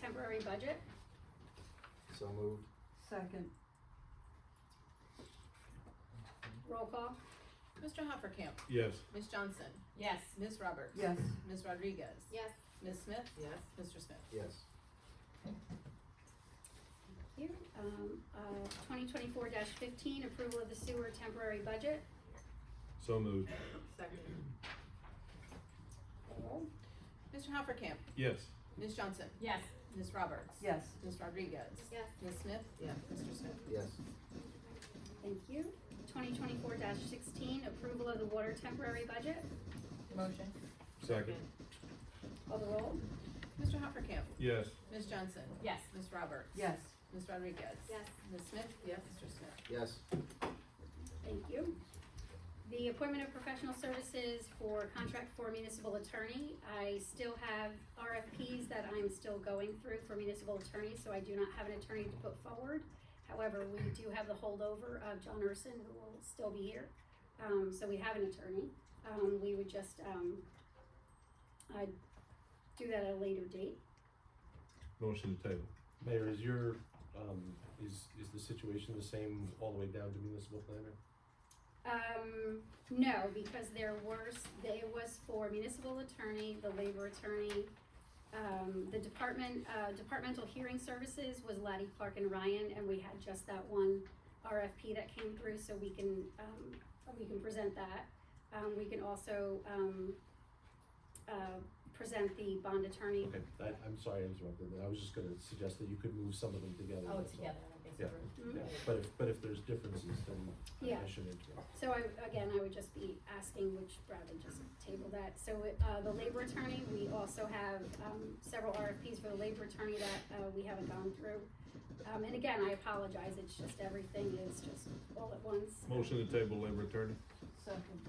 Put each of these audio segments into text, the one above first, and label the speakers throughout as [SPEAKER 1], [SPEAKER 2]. [SPEAKER 1] temporary budget.
[SPEAKER 2] So moved.
[SPEAKER 3] Second,
[SPEAKER 1] Roll call.
[SPEAKER 4] Mr. Hoppercamp,
[SPEAKER 5] yes,
[SPEAKER 4] Ms. Johnson,
[SPEAKER 6] Yes.
[SPEAKER 4] Ms. Roberts.
[SPEAKER 3] yes,
[SPEAKER 4] Ms. Rodriguez.
[SPEAKER 1] Yes.
[SPEAKER 4] Ms. Smith,
[SPEAKER 6] Yes.
[SPEAKER 4] Mr. Smith.
[SPEAKER 2] Yes.
[SPEAKER 1] Here, um, uh, twenty twenty-four fifteen, approval of the sewer temporary budget.
[SPEAKER 5] so moved,
[SPEAKER 6] Second.
[SPEAKER 1] Roll.
[SPEAKER 4] Mr. Hoppercamp,
[SPEAKER 5] yes,
[SPEAKER 4] Ms. Johnson,
[SPEAKER 6] Yes.
[SPEAKER 4] Ms. Roberts.
[SPEAKER 3] yes,
[SPEAKER 4] Ms. Rodriguez.
[SPEAKER 1] Yes.
[SPEAKER 4] Ms. Smith.
[SPEAKER 6] Yes.
[SPEAKER 4] Mr. Smith.
[SPEAKER 2] Yes.
[SPEAKER 1] Thank you. Twenty twenty-four sixteen, approval of the water temporary budget.
[SPEAKER 6] Motion.
[SPEAKER 5] second,
[SPEAKER 1] Call the roll.
[SPEAKER 4] Mr. Hoppercamp,
[SPEAKER 5] yes,
[SPEAKER 4] Ms. Johnson,
[SPEAKER 6] Yes.
[SPEAKER 4] Ms. Roberts.
[SPEAKER 3] yes,
[SPEAKER 4] Ms. Rodriguez.
[SPEAKER 1] Yes.
[SPEAKER 4] Ms. Smith. Yes. Mr. Smith.
[SPEAKER 2] Yes.
[SPEAKER 1] Thank you. The appointment of professional services for contract for municipal attorney. I still have RFPs that I'm still going through for municipal attorney, so I do not have an attorney to put forward. However, we do have the holdover of John Urson, who will still be here. Um, so we have an attorney. Um, we would just, um, i do that at a later date.
[SPEAKER 5] motion to table,
[SPEAKER 7] Mayor, is your, um, is, is the situation the same all the way down to municipal planner?
[SPEAKER 1] Um, no, because there were, s- they was for municipal attorney, the labor attorney, um, the department, uh, departmental hearing services was Laddie Clark and Ryan, and we had just that one RFP that came through, so we can, um, we can present that. Um, we can also, um, uh, present the bond attorney.
[SPEAKER 7] Okay, I, I'm sorry I interrupted, but I was just gonna suggest that you could move some of them together.
[SPEAKER 6] Oh,
[SPEAKER 7] that's all.
[SPEAKER 6] together, okay, so
[SPEAKER 7] Yeah.
[SPEAKER 6] we're-
[SPEAKER 7] Yeah, but if, but if there's differences, then
[SPEAKER 1] Yeah.
[SPEAKER 7] I shouldn't interrupt.
[SPEAKER 1] So I, again, I would just be asking, which rather just table that. So, uh, the labor attorney, we also have, um, several RFPs for the labor attorney that, uh, we haven't gone through. Um, and again, I apologize, it's just everything is just all at once.
[SPEAKER 5] motion to table labor attorney,
[SPEAKER 3] second,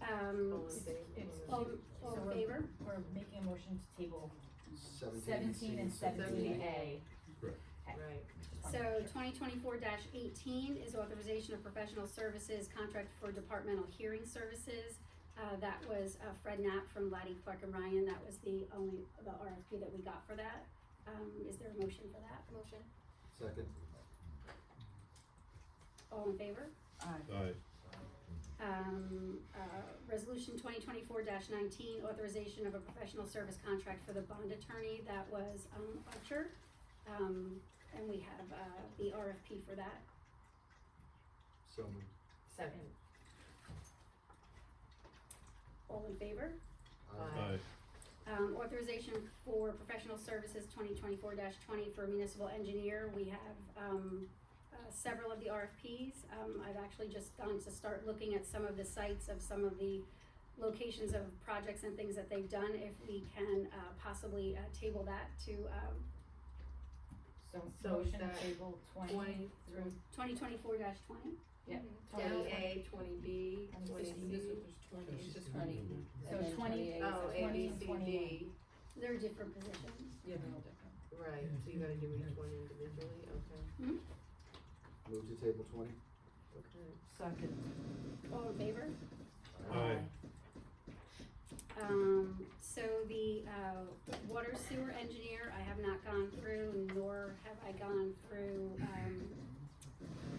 [SPEAKER 1] Um,
[SPEAKER 6] All in favor?
[SPEAKER 1] all, all in favor?
[SPEAKER 6] We're making a motion to table
[SPEAKER 2] C.
[SPEAKER 6] seventeen and seventeen A.
[SPEAKER 5] Correct.
[SPEAKER 6] Right.
[SPEAKER 1] So twenty twenty-four eighteen is authorization of professional services contract for departmental hearing services. Uh, that was uh, Fred Knapp from Laddie Clark and Ryan, that was the only, the RFP that we got for that. Um, is there a motion for that? Motion.
[SPEAKER 2] Second.
[SPEAKER 1] All in favor?
[SPEAKER 3] aye,
[SPEAKER 5] aye,
[SPEAKER 1] Um, uh, resolution twenty twenty-four nineteen, authorization of a professional service contract for the bond attorney, that was, um, Archer. Um, and we have, uh, the RFP for that.
[SPEAKER 2] So moved.
[SPEAKER 6] Second.
[SPEAKER 1] All in favor?
[SPEAKER 2] Aye.
[SPEAKER 5] aye,
[SPEAKER 1] Um, authorization for professional services twenty twenty-four twenty for municipal engineer, we have, um, uh, several of the RFPs. Um, I've actually just gone to start looking at some of the sites of some of the locations of projects and things that they've done, if we can, uh, possibly, uh, table that to, um,
[SPEAKER 6] So,
[SPEAKER 8] So is
[SPEAKER 6] motion to
[SPEAKER 8] that
[SPEAKER 6] table twenty.
[SPEAKER 8] Twenty through
[SPEAKER 1] twenty twenty-four twenty.
[SPEAKER 6] Yep.
[SPEAKER 8] twenty A, twenty B,
[SPEAKER 6] And
[SPEAKER 8] twenty
[SPEAKER 6] this-
[SPEAKER 8] C.
[SPEAKER 6] this was twenty.
[SPEAKER 7] Yes.
[SPEAKER 8] Just twenty.
[SPEAKER 6] So
[SPEAKER 4] And then
[SPEAKER 6] twenty,
[SPEAKER 4] 28.
[SPEAKER 8] Oh, A,
[SPEAKER 6] twenty
[SPEAKER 8] B,
[SPEAKER 6] and
[SPEAKER 8] C,
[SPEAKER 6] twenty-one.
[SPEAKER 8] D,
[SPEAKER 1] They're different positions.
[SPEAKER 4] Yeah, they're all different.
[SPEAKER 8] right, so you gotta do each one individually, okay,
[SPEAKER 1] Hmm?
[SPEAKER 2] Move to table twenty.
[SPEAKER 8] okay.
[SPEAKER 3] second,
[SPEAKER 1] All in favor?
[SPEAKER 5] aye,
[SPEAKER 1] Um, so the, uh, water sewer engineer, I have not gone through, nor have I gone through, um,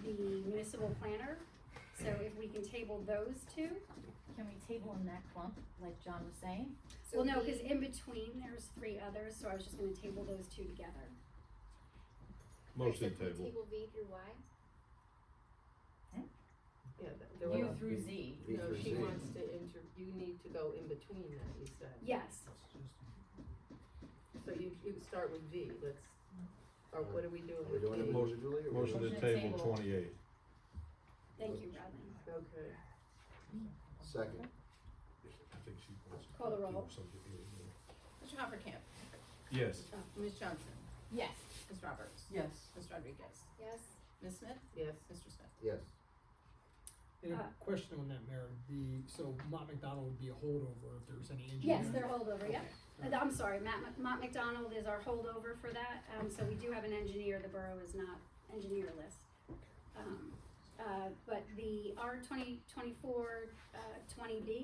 [SPEAKER 1] the municipal planner. So if we can table those two,
[SPEAKER 6] Can we table in that clump, like John was saying?
[SPEAKER 1] well, no, cause in between, there's three others, so I was just gonna table those two together.
[SPEAKER 5] motion to table,
[SPEAKER 9] V through Y?
[SPEAKER 8] Yeah, that- there
[SPEAKER 6] U
[SPEAKER 8] was,
[SPEAKER 6] through Z.
[SPEAKER 2] V
[SPEAKER 8] no,
[SPEAKER 2] through Z.
[SPEAKER 8] she wants to inter, you need to go in between that, you said.
[SPEAKER 1] Yes,
[SPEAKER 8] So you, you start with V, let's, or what are we doing
[SPEAKER 2] Are we
[SPEAKER 8] with
[SPEAKER 2] doing it
[SPEAKER 8] V?
[SPEAKER 2] individually or?
[SPEAKER 5] motion to table twenty-eight,
[SPEAKER 1] thank you, Bradley.
[SPEAKER 8] Okay.
[SPEAKER 2] Second.
[SPEAKER 5] I think she wants. to
[SPEAKER 1] Call the roll.
[SPEAKER 5] do something here.
[SPEAKER 4] Mr. Hoppercamp,
[SPEAKER 5] Yes,
[SPEAKER 4] Ms. Johnson,
[SPEAKER 6] Yes.
[SPEAKER 4] Ms. Roberts,
[SPEAKER 3] yes,
[SPEAKER 4] Ms. Rodriguez,
[SPEAKER 9] Yes.
[SPEAKER 4] Ms. Smith,
[SPEAKER 8] Yes,
[SPEAKER 4] Mr. Smith.
[SPEAKER 2] Yes.
[SPEAKER 10] And
[SPEAKER 1] Uh,
[SPEAKER 10] a question on that, Mayor, the, so Mott McDonald would be a holdover if there was any injury?
[SPEAKER 1] Yes, they're holdover, yeah. And Uh, I'm sorry, Matt, Mc- Matt McDonald is our holdover for that, um, so we do have an engineer, the borough is not engineerless. Um, uh, but the R twenty twenty-four, uh, twenty B